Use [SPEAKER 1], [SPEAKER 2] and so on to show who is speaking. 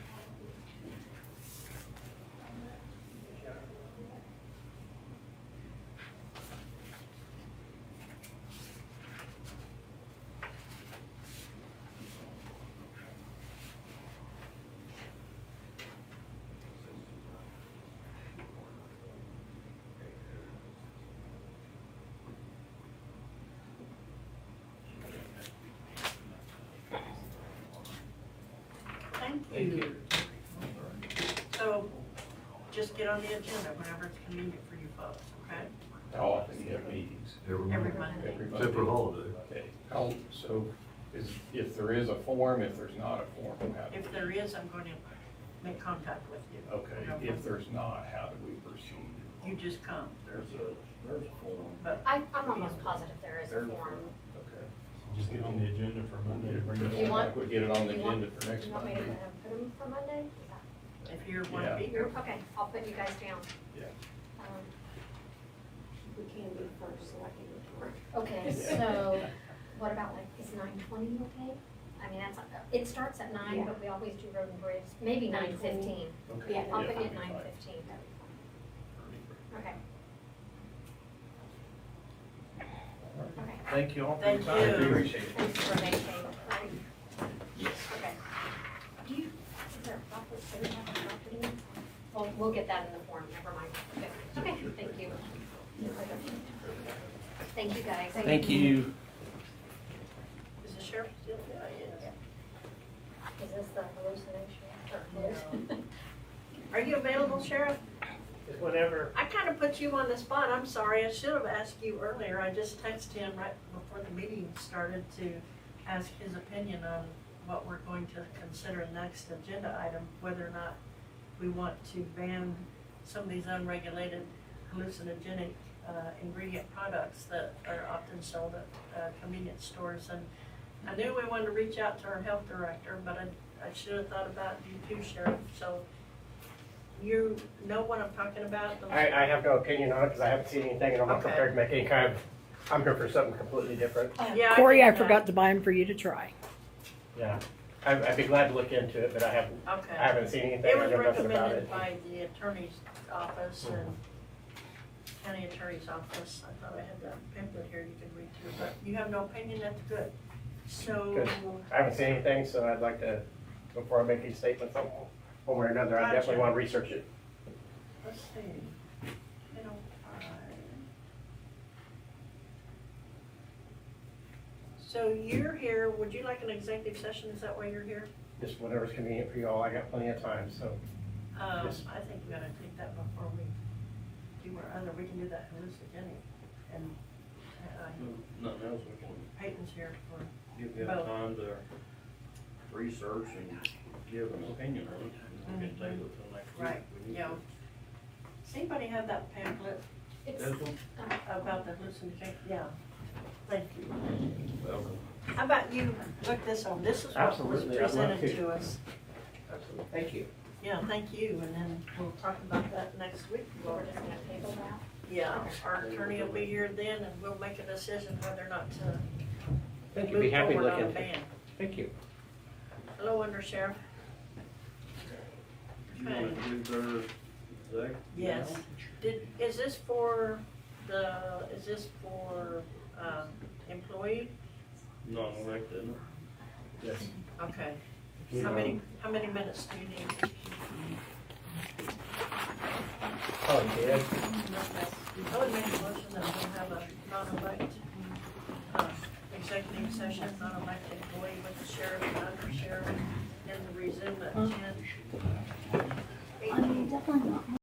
[SPEAKER 1] Thank you.
[SPEAKER 2] So just get on the agenda whenever it's convenient for you folks, okay?
[SPEAKER 1] How often you have meetings?
[SPEAKER 2] Every Monday.
[SPEAKER 1] Every
[SPEAKER 3] Except for
[SPEAKER 1] Monday?
[SPEAKER 3] holiday.
[SPEAKER 1] Okay, how, so is, if there is a form, if there's not a form, how do
[SPEAKER 2] If there is, I'm going to make contact with you.
[SPEAKER 1] Okay, if there's not, how do we proceed?
[SPEAKER 2] You just come.
[SPEAKER 1] There's a, there's a form.
[SPEAKER 2] But
[SPEAKER 4] I, I'm almost positive there is a
[SPEAKER 1] There's a
[SPEAKER 4] form.
[SPEAKER 1] Okay.
[SPEAKER 5] Just get on the agenda for Monday to bring it
[SPEAKER 4] You
[SPEAKER 5] up.
[SPEAKER 4] want-
[SPEAKER 1] We get it on the
[SPEAKER 4] You want-
[SPEAKER 1] agenda for next
[SPEAKER 4] You want me
[SPEAKER 1] Monday.
[SPEAKER 4] to put them for Monday? Is that-
[SPEAKER 2] if you want to be
[SPEAKER 4] You're,
[SPEAKER 2] here,
[SPEAKER 4] okay, I'll put you guys down.
[SPEAKER 1] Yeah.
[SPEAKER 4] Um,
[SPEAKER 6] We can do first, so I can report.
[SPEAKER 4] Okay, so what about like, is nine twenty okay? I mean, that's, it starts at nine, but we always do road and bridge, maybe nine
[SPEAKER 6] 9:20.
[SPEAKER 4] fifteen.
[SPEAKER 1] Okay.
[SPEAKER 6] Yeah,
[SPEAKER 4] I'll
[SPEAKER 1] that'd
[SPEAKER 4] put you at
[SPEAKER 1] be
[SPEAKER 4] nine
[SPEAKER 1] fine.
[SPEAKER 4] fifteen. Okay. Okay,
[SPEAKER 1] Thank you all for your
[SPEAKER 2] Thank
[SPEAKER 1] time.
[SPEAKER 2] you.
[SPEAKER 1] Appreciate it.
[SPEAKER 4] thanks for making, right? Okay. Do you, is there a property, do we have a property? Well, we'll get that in the form, never mind. Okay, Okay, thank you. Thank you, guys.
[SPEAKER 7] Thank you.
[SPEAKER 2] is the sheriff still there? Yes.
[SPEAKER 4] Is this the hallucination or hallucination?
[SPEAKER 2] Are you available, sheriff?
[SPEAKER 8] Whenever,
[SPEAKER 2] I kind of put you on the spot. I'm sorry. I should have asked you earlier. I just texted him right before the meeting started to ask his opinion on what we're going to consider next agenda item, whether or not we want to ban some of these unregulated hallucinogenic uh, ingredient products that are often sold at uh, convenience stores. And I knew we wanted to reach out to our health director, but I, I should have thought about you too, Sheriff. So you know what I'm talking about? the-
[SPEAKER 8] I, I have no opinion on it because I haven't seen anything and I'm not
[SPEAKER 2] Okay.
[SPEAKER 8] prepared to make any kind of, I'm here for something completely different.
[SPEAKER 2] Yeah,
[SPEAKER 9] Corey, I
[SPEAKER 2] think that-
[SPEAKER 9] forgot to buy them for you to try.
[SPEAKER 8] Yeah. I'd, I'd be glad to look into it, but I haven't, I
[SPEAKER 2] Okay.
[SPEAKER 8] haven't seen anything.
[SPEAKER 2] It
[SPEAKER 8] I
[SPEAKER 2] was
[SPEAKER 8] know nothing about it.
[SPEAKER 2] recommended by the attorney's office and county attorney's office. I thought I had that pamphlet here you can read through, but you have no opinion, that's good. So,
[SPEAKER 8] Good. I haven't seen anything, so I'd like to, before I make these statements, one one way or another, I
[SPEAKER 2] Gotcha.
[SPEAKER 8] definitely want to research it.
[SPEAKER 2] let's see. They don't find- So you're here, would you like an executive session? Is that why you're here?
[SPEAKER 8] Just whatever's convenient for you all. I got plenty of time, so.
[SPEAKER 2] Um,
[SPEAKER 8] Yes.
[SPEAKER 2] I think we gotta take that before we do our other, we can do that hallucinogenic and, uh,
[SPEAKER 8] Hmm.
[SPEAKER 10] Nothing else, we
[SPEAKER 2] Peyton's here for,
[SPEAKER 8] Mm-hmm.
[SPEAKER 10] can give them
[SPEAKER 2] Well-
[SPEAKER 10] time to research and give an opinion on it.
[SPEAKER 4] Mm-hmm.
[SPEAKER 10] and We can table it till next week.
[SPEAKER 2] Right,
[SPEAKER 10] We need
[SPEAKER 2] yeah. Does anybody have that pamphlet
[SPEAKER 4] It's,
[SPEAKER 10] That's one.
[SPEAKER 4] um,
[SPEAKER 2] about the hallucinogenic? Yeah, thank you.
[SPEAKER 10] to- Well,
[SPEAKER 2] How about you look this on, this is what was
[SPEAKER 8] Absolutely, I'd love
[SPEAKER 2] presented
[SPEAKER 8] to.
[SPEAKER 2] to us.
[SPEAKER 8] Thank you.
[SPEAKER 2] Yeah, thank you, and then we'll talk about that next week.
[SPEAKER 4] we're just gonna table that.
[SPEAKER 2] Yeah, our attorney will be here then and we'll make a decision whether or not to
[SPEAKER 8] Thank you. Be
[SPEAKER 2] move
[SPEAKER 8] happy to
[SPEAKER 2] forward
[SPEAKER 8] look
[SPEAKER 2] on a
[SPEAKER 8] into it.
[SPEAKER 2] ban.
[SPEAKER 8] Thank you.
[SPEAKER 2] Hello, undersheriff.
[SPEAKER 10] You wanna do their exec?
[SPEAKER 2] Yes.
[SPEAKER 10] now?
[SPEAKER 2] Did, is this for the, is this for, um, employee?
[SPEAKER 10] Non-elected, isn't it?
[SPEAKER 8] Yes.
[SPEAKER 2] Okay. How many, how many minutes do you need?
[SPEAKER 8] Oh, you did?
[SPEAKER 2] I would make a motion that we have a non-elect, uh, executive session, non-elected employee with the sheriff and under sheriff